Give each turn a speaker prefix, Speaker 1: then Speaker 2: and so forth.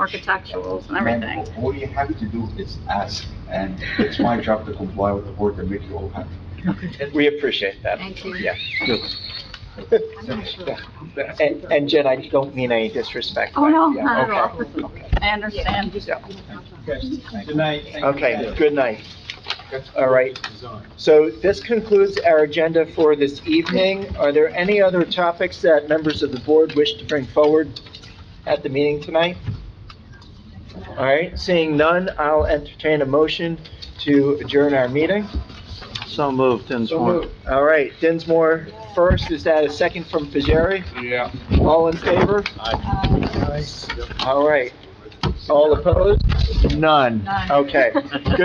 Speaker 1: architecturals and everything.
Speaker 2: All you have to do is ask, and it's my job to comply with the board and make you all happy.
Speaker 3: We appreciate that.
Speaker 4: Thank you.
Speaker 3: Yeah.
Speaker 4: I'm not sure.
Speaker 3: And, and Jen, I don't mean any disrespect.
Speaker 1: Oh, no,
Speaker 3: Yeah,
Speaker 1: not at all.
Speaker 3: okay.
Speaker 1: Listen, I understand.
Speaker 5: Good night. Thank you.
Speaker 3: Okay, good night. All right. So this concludes our agenda for this evening. Are there any other topics that members of the board wish to bring forward at the meeting tonight? All right, seeing none, I'll entertain a motion to adjourn our meeting.
Speaker 6: So moved, Dinsmore.
Speaker 3: All right, Dinsmore first, is that a second from Fajeri?
Speaker 6: Yeah.
Speaker 3: All in favor?
Speaker 1: Um,
Speaker 3: All right. All opposed?
Speaker 6: None.
Speaker 4: Nine.
Speaker 3: Okay.